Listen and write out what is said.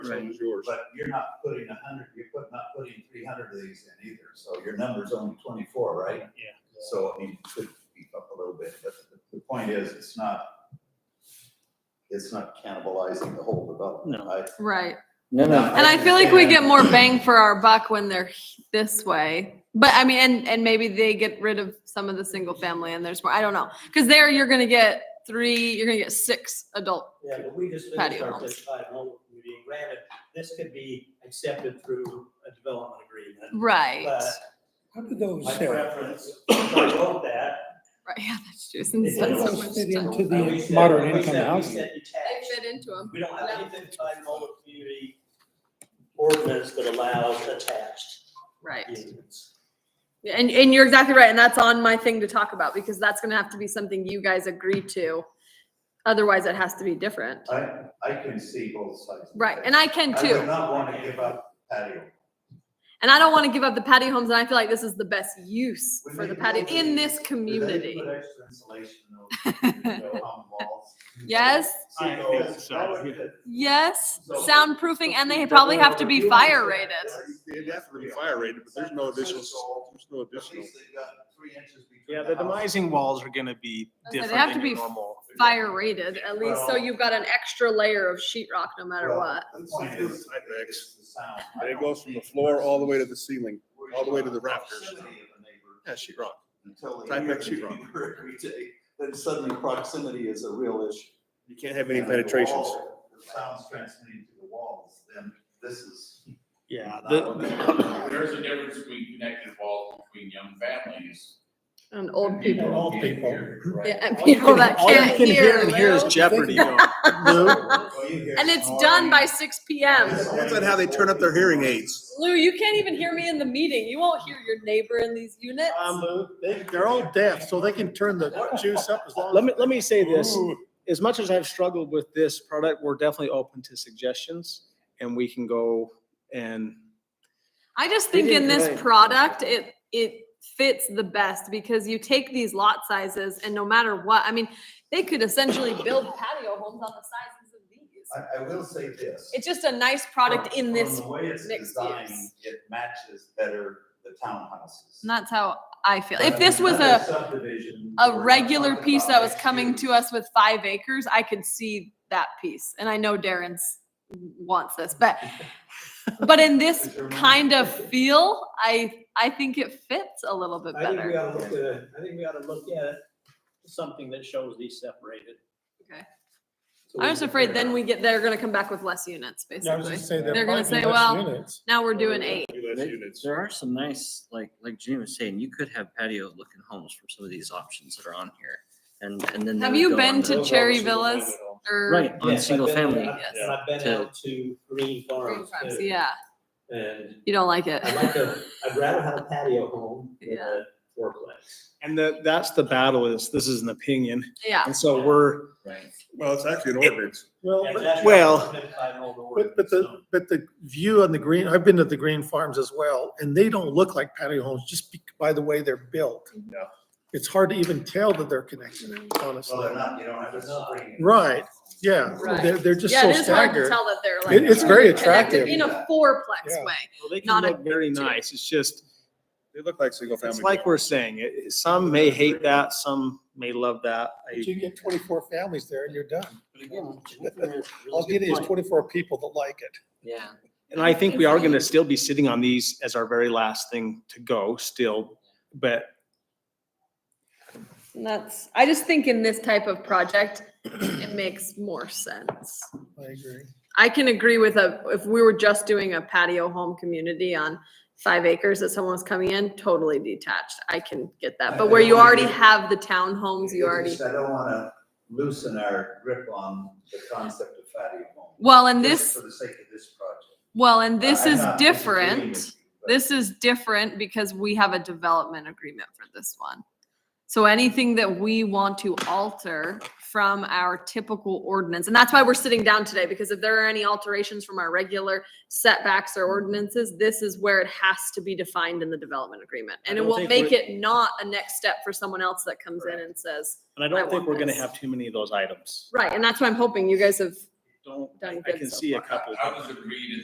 same as yours. But you're not putting a hundred, you're put- not putting three hundred of these in either, so your number's only twenty-four, right? Yeah. So, I mean, it could beef up a little bit, but the, the point is, it's not, it's not cannibalizing the whole development. No. I- Right. No, no. And I feel like we get more bang for our buck when they're h- this way. But I mean, and, and maybe they get rid of some of the single family and there's more, I don't know. Cause there you're gonna get three, you're gonna get six adult. Yeah, but we just Patio finished our homes. certified home review. Granted, this could be accepted through a development agreement. Right. But How do those, my Sarah, preference, if I wrote that. Right, yeah, that's true. They Since how do that's so don't those much fit time. into I the wish that- moderate I wish income that we housing? said They detached. fit into them. We don't have anything by Mullet Community ordinance that allows attached Right. units. Yeah, And, and you're exactly right. And that's on my thing to talk about because that's gonna have to be something you guys agree to. Otherwise it has to be different. I, I can see both sides. of Right. it. And I can I would too. not want to give up patio. And I don't want to give up the patio homes, and I feel like this is the best use When for they the go patio to- in this Do they community. Put extra insulation in those, you know, on walls. Yes, I So, think so, that would yeah. fit. yes, So- soundproofing, and they probably have to be fire rated. It'd have to be fire rated, but there's no additional, there's no At additional. least they've got three inches between. Yeah, the house. demising walls are gonna be I said, they have different to than your be normal. Fire rated, at least, so Well- you've got an extra layer of sheetrock no matter Well, what. The point is, it's the sound. I It don't goes from the think floor all the way to versus the ceiling. where all the you way are to the in rafters. proximity of a neighbor Yeah, sheet rock. Until they Type hear that the sheet rock. neighbor every day, then suddenly proximity is a real issue. You can't have any And the penetrations. wall, The sound's transmitting to the walls, then this is. Yeah, not the, what they- There's a difference between connected walls between young families. And old and people, Old can't people. hear, right? yeah, and all you people can- that all you can't can hear. and hear is Lou. Jeopardy going. Well, you hear And it's snoring. done by six P M. Depends on how they turn up their hearing aids. Lou, you can't even hear me in the meeting. You won't hear your neighbor in these units. Um, They, they're all deaf, so they can turn the juice up as Let me, let me say this, as much as I've struggled with this product, we're definitely open to suggestions and we can go and I just They think did in this great. product, it, it fits the best because you take these lot sizes and no matter what, I mean, they could essentially build patio homes on the sizes of these. I, I will say this. It's just a nice product in From this, the way it's mixed designed, use. It matches better the townhouses. and that's how I feel. If But this was another a, subdivision a where regular something piece about that was mixed coming to use, us with five acres, I could see that piece. And I know Darren's wants this, but, but in this Is your mom- kind of feel, I, I think it fits a little bit I think we better. ought to look at, I think we ought to look at something that shows these separated. Okay. So we I'm just can afraid figure then out. we get, they're gonna come back with less units, I was basically. just saying, there They're gonna might be say, less well- units. Now we're doing eight. Less There- units. There are some nice, like, like Jimmy was saying, you could have patio looking homes for some of these options that are on here. And, and then. they Have would you go been on to the- Cherry Villas or Right, on Yes, I've single been- family. I've- Yes. I've been To- out to Green Green Farms Farms? too, Yeah, and you don't like it. I'd like to, I'd rather have a patio home than a fourplex. And that, that's the battle is, this is an opinion. Yeah, And so we're, Right. Well, it's actually an ordinance. Well, Yeah, but- that's well, what I've been by an old But, but ordinance, the, but the view on the green, I've been to the green farms as well, and they don't look like patio homes just be- by the way they're built. Mm-hmm. Yeah. It's hard to even tell that they're connected, Well, honestly. they're not, you don't have a spring. Right, Yeah, Right. they're, they're just yeah, so it is hard to staggered. tell that they're like. It- it's very truly connected attractive. In a fourplex Yeah. way. well, they can Not a look very picture. nice. It's just, They look like single family. it's like we're saying, it- it- some may hate that, some may love that. I- You get twenty-four families there and you're done. But again, Jimmy made a really All you good need is point. twenty-four people that like it. Yeah. And I think we are gonna still be sitting on these as our very last thing to go still, but And that's, I just think in this type of project, it makes more sense. I agree. I can agree with a, if we were just doing a patio home community on five acres that someone was coming in, totally detached. I can get that. But where you already have the townhomes, you It's already. just I don't wanna loosen our grip on the concept of patio home. Well, and Just For this, the sake of this project. well, and this Uh, I'm is not disagreeing with different. you, but This is different because we have a development agreement for this one. So anything that we want to alter from our typical ordinance, and that's why we're sitting down today, because if there are any alterations from our regular setbacks or ordinances, this is where it has to be defined in the development agreement. I And it don't will think make we're- it not a next step for someone else that comes in and says, And I I don't think want we're gonna this. have too many of those items. right, and that's why I'm hoping you guys have don't, Done I good can so see a I couple. I was agreed